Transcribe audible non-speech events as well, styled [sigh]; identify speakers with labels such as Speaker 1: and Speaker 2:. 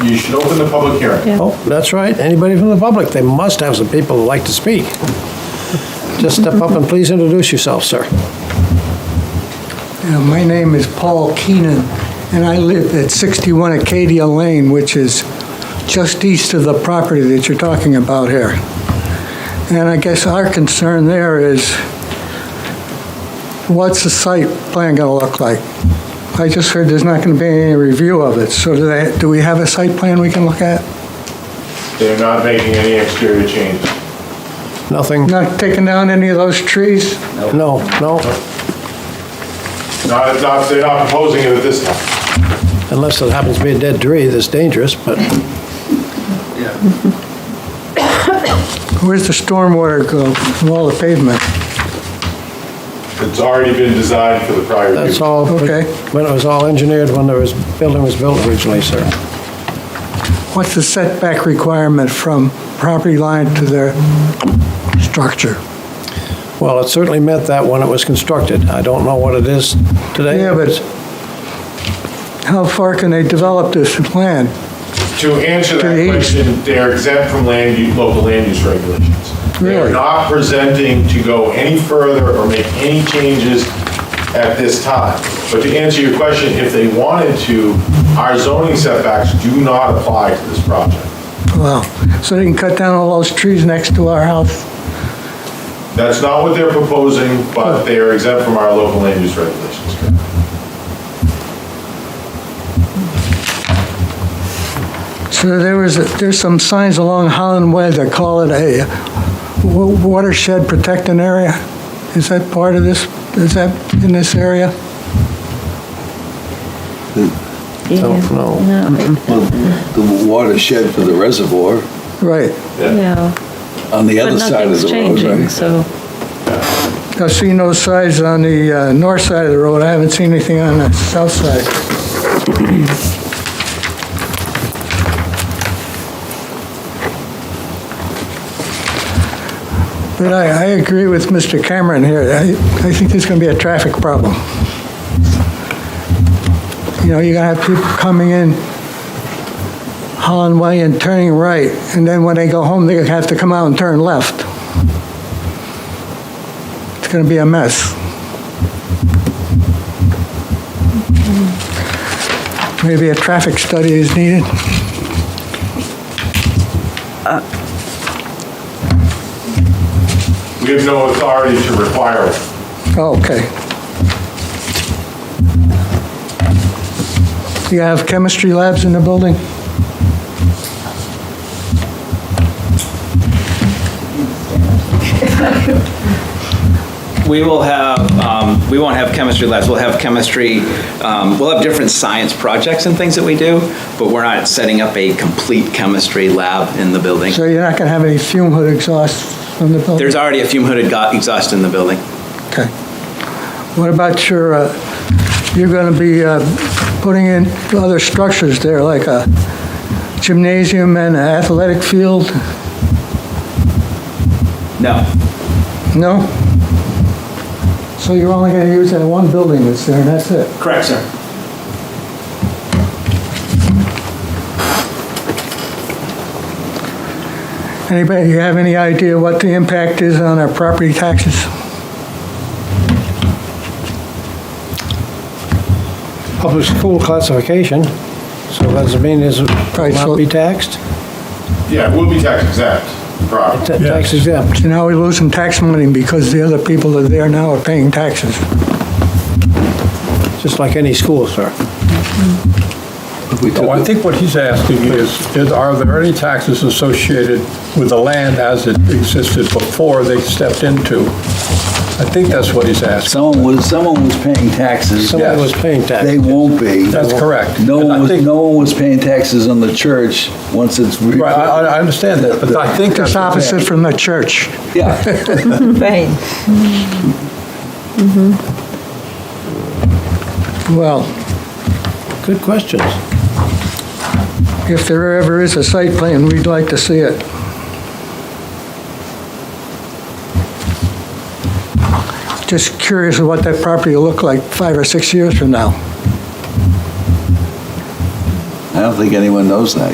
Speaker 1: you should open the public hearing.
Speaker 2: Oh, that's right, anybody from the public, they must have some people who like to speak. Just step up and please introduce yourself, sir.
Speaker 3: Yeah, My name is Paul Keenan, and I live at 61 Acadia Lane, which is just east of the property that you're talking about here. And I guess our concern there is, what's the site plan going to look like? I just heard there's not going to be any review of it, so do they, do we have a site plan we can look at?
Speaker 1: They're not making any exterior changes.
Speaker 2: Nothing,
Speaker 3: Not taking down any of those trees?
Speaker 2: no, no,
Speaker 1: Not, not, they're not proposing it at this time.
Speaker 2: unless it happens to be a dead tree that's dangerous, but
Speaker 3: Where's the stormwater go from all the pavement?
Speaker 1: It's already been designed for the prior use.
Speaker 2: that's all.
Speaker 3: Okay.
Speaker 2: When it was all engineered, when the was- building was built originally, sir.
Speaker 3: What's the setback requirement from property line to their structure?
Speaker 2: Well, it certainly meant that when it was constructed. I don't know what it is today.
Speaker 3: Yeah, but how far can they develop this plan?
Speaker 1: To answer
Speaker 3: To
Speaker 1: that
Speaker 3: the east.
Speaker 1: question, they're exempt from land, u- local land use regulations. They're
Speaker 3: Really?
Speaker 1: not presenting to go any further or make any changes at this time. But to answer your question, if they wanted to, our zoning setbacks do not apply to this project.
Speaker 3: Wow, so they can cut down all those trees next to our house?
Speaker 1: That's not what they're proposing, but they are exempt from our local land use regulations.
Speaker 3: So there was, there's some signs along Holland Way that call it a wa- watershed protected area? Is that part of this, is that in this area?
Speaker 2: Don't know.
Speaker 4: Well, the watershed for the reservoir
Speaker 3: Right,
Speaker 5: Yeah,
Speaker 4: on the
Speaker 5: but
Speaker 4: other side of
Speaker 5: nothing's
Speaker 4: the road,
Speaker 5: changing,
Speaker 4: right?
Speaker 5: so,
Speaker 3: I've seen those signs on the uh, north side of the road, I haven't seen anything on the south side. But I, I agree with Mr. Cameron here, I, I think there's gonna be a traffic problem. You know, you're gonna have people coming in Holland Way and turning right, and then when they go home, they're gonna have to come out and turn left. It's going to be a mess. Maybe a traffic study is needed.
Speaker 1: We have no authority to require it.
Speaker 3: Oh, okay. Do you have chemistry labs in the building?
Speaker 6: We will have, um, we won't have chemistry labs, we'll have chemistry, um, we'll have different science projects and things that we do, but we're not setting up a complete chemistry lab in the building.
Speaker 3: So you're not going to have any fume hood exhaust from the building?
Speaker 6: There's already a fume hooded go- exhaust in the building.
Speaker 3: Okay. What about your, uh, you're going to be uh, putting in other structures there, like a gymnasium and an athletic field?
Speaker 6: No,
Speaker 3: No? So you're only going to use that one building that's there, and that's it?
Speaker 6: correct, sir.
Speaker 3: Anybody, you have any idea what the impact is on our property taxes?
Speaker 2: Public school classification, so does it mean is it
Speaker 3: Right, so-
Speaker 2: not be taxed?
Speaker 1: Yeah, we'll be tax exempt, probably.
Speaker 2: Ta- Tax exempt.
Speaker 3: So now we lose some tax money because the other people that are there now are paying taxes.
Speaker 2: just like any school, sir.
Speaker 4: We took
Speaker 7: No, Oh, I
Speaker 4: the-
Speaker 7: think what he's asking is, is are there any taxes associated with the land as it existed before they stepped into? I think that's what he's asking.
Speaker 4: Someone was, someone was paying taxes.
Speaker 2: Somebody
Speaker 7: Yes.
Speaker 2: was paying tax.
Speaker 4: They won't be.
Speaker 7: That's correct.
Speaker 4: No
Speaker 7: And I
Speaker 4: one was,
Speaker 7: think-
Speaker 4: no one was paying taxes on the church once it's. re-
Speaker 7: Right, I, I- I understand that, but I think that's
Speaker 3: It's
Speaker 7: what he's
Speaker 3: opposite from the church. [laughs]
Speaker 4: Yeah,
Speaker 5: right,
Speaker 3: Well,
Speaker 2: Good questions.
Speaker 3: if there ever is a site plan, we'd like to see it. Just curious of what that property will look like five or six years from now.
Speaker 4: I don't think anyone knows that